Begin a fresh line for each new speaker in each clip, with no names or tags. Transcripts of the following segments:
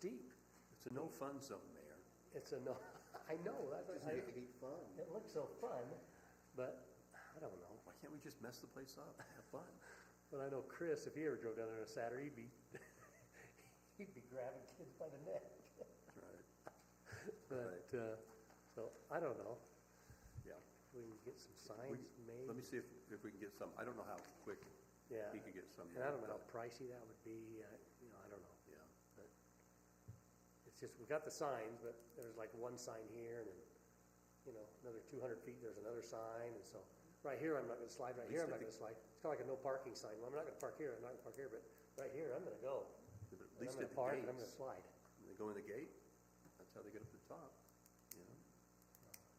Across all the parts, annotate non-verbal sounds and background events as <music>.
deep. It's a no-fun zone, Mayor.
It's a no, <laughs> I know, that's,
Doesn't
I,
have to be fun.
it looks so fun, but I don't know.
Why can't we just mess the place
<laughs>
up, have fun?
But I know Chris, if he ever drove down there on a Saturday, he'd be, <laughs> he'd be grabbing kids by the neck.
Right,
But, uh, so I don't know.
yeah.
We can get some
We-
signs
Let me
made.
see if, if we can get some, I don't know how quick
Yeah.
he could get some.
And I don't know
but,
how pricey that would be. uh, You know, I don't know.
Yeah,
It's just, we got the signs, but there's like one sign here and then, you know, another two hundred feet, there's another sign. And so, right here, I'm not gonna slide, right here, I'm not gonna slide. It's kinda like a no parking sign. Well, I'm not gonna park here, I'm not gonna park here, but right here, I'm gonna go.
but at
And I'm
least
gonna
at
park and
the
I'm gonna
gates,
slide.
When they go in the gate, that's how they get up the top, you know,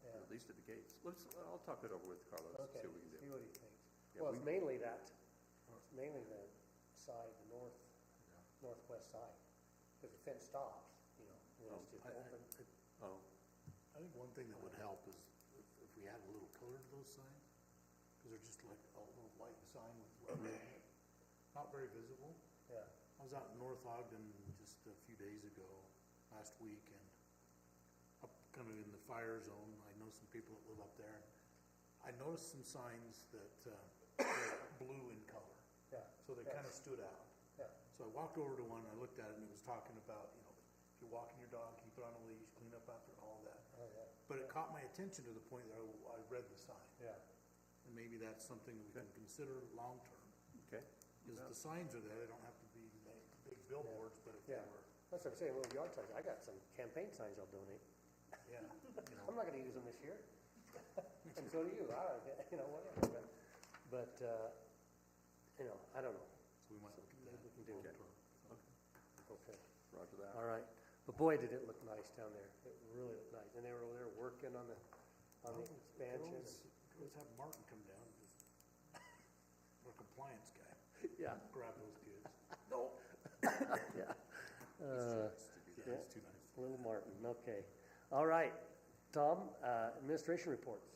Yeah.
at least at the gates. Let's, I'll talk it over with Carlos, and
Okay,
see what we
see
can do.
what he thinks.
Yeah,
Well, it's
we-
mainly that, it's mainly the side, the north, northwest side. Because the fence stops, you know, and it's just
I, I,
open.
I
Oh,
I think one thing that would help is if, if we add a little color to those signs, because they're just like a little white sign with lettering on it. not very visible.
Yeah,
I was out in North Ogden just a few days ago, last week, and up kind of in the fire zone, I know some people that live up there. I noticed some signs that, uh, were blue in color,
yeah,
so they kind of stood out.
yeah,
So I walked over to one, I looked at it, and it was talking about, you know, if you're walking your dog, keep it on a leash, clean up after it, all that.
oh, yeah,
But it caught my attention to the point that I, I read the sign,
yeah.
and maybe that's something that we can consider long-term.
okay.
Because the signs are there, they don't have to be like big billboards, but if they
Yeah,
were,
that's what I'm saying, little yard signs, I got some campaign signs I'll donate,
yeah, you know.
I'm not gonna use them this year. <laughs> And so do you, I, don't- you know, whatever, but, but, uh, you know, I don't know,
So we might look at that.
maybe we can do
Okay.
it, okay.
Roger
All
that.
right, but boy, did it look nice down there, it really looked nice, and they were over there working on the, on the expansion.
Girls, girls have Martin come down, and just, <laughs> our compliance guy,
Yeah,
grab those kids.
yeah,
Yeah, it's too nice.
little Uh, Martin, okay. All right, Tom, uh, administration reports.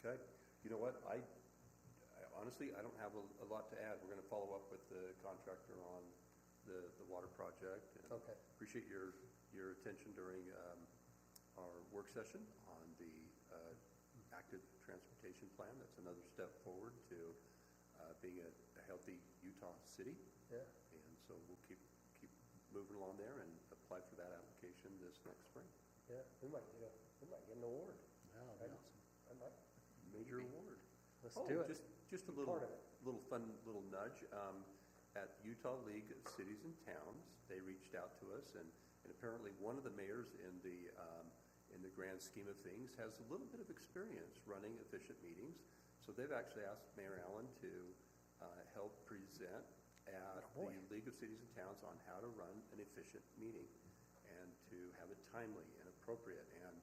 Okay, you know what, I, I honestly, I don't have a, a lot to add. We're gonna follow up with the contractor on the, the water project. and
Okay.
Appreciate your, your attention during, um, our work session on the, uh, active transportation plan. That's another step forward to, uh, being a, a healthy Utah city.
Yeah.
And so we'll keep, keep moving along there and apply for that application this next spring.
Yeah, we might get a, we might get an award. Right? I might.
Major award.
Let's
Oh,
do it.
Just, just a little,
part of it.
little fun, little nudge. Um, at Utah League of Cities and Towns, they reached out to us, and, and apparently one of the mayors in the um, in the grand scheme of things has a little bit of experience running efficient meetings. So they've actually asked Mayor Allen to uh, help present at the League of Cities and Towns on how to run an efficient meeting and to have it timely and appropriate and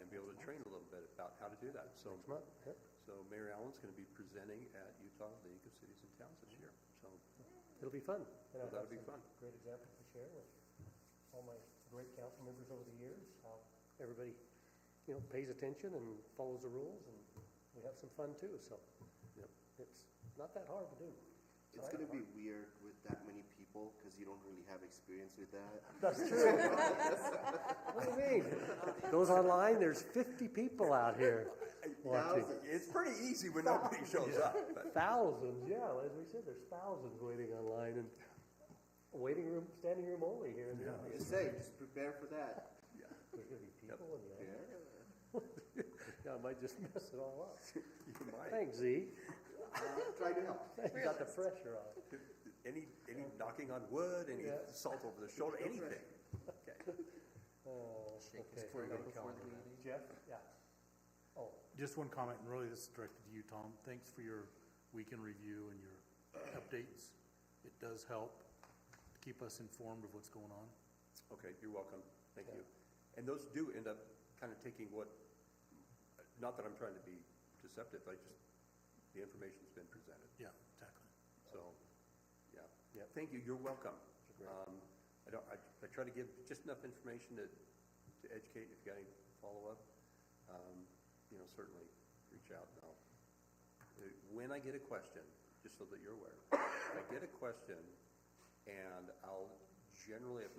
and be able to train a little bit about how to do that. So
Come on, yeah.
so Mayor Allen's going to be presenting at Utah League of Cities and Towns this year, so
It'll be fun. And I
Well,
have
that'll be
some
fun.
Great examples to share with all my great council members over the years, how everybody, you know, pays attention and follows the rules, and we have some fun too, so.
Yep.
It's not that hard to do.
It's gonna be weird with that many people, cause you don't really have experience with that.
<laughs> That's true. What do you mean?
<laughs>
Goes online, there's fifty people out here watching.
It's pretty easy when nobody shows <laughs> up, but
Thousands, yeah, as we said, there's thousands waiting online and waiting room, standing room only here in the
Like
office.
I say, just prepare for that.
There's gonna be people in the
Yeah.
audience. Yeah, I might just mess it all up.
you might,
Thanks, Z.
Uh, Try to help.
You got the pressure on.
any, any knocking on wood, any
Yeah.
salt over the shoulder, anything. Okay.
Oh, okay.
Before the meeting.
Jeff? Yeah. Oh,
Just one comment, and really this is directed to you, Tom. Thanks for your weekend review and your updates. It does help to keep us informed of what's going on.
Okay, you're welcome. Thank you. And those do end up kind of taking what, not that I'm trying to be deceptive, I just, the information's been presented.
Yeah, exactly.
So, yeah, yeah, thank you, you're welcome. Um, I don't, I, I try to give just enough information to, to educate, if you got any follow-up, um, you know, certainly, reach out and I'll. uh, When I get a question, just so that you're aware, if I get a question, and I'll generally, if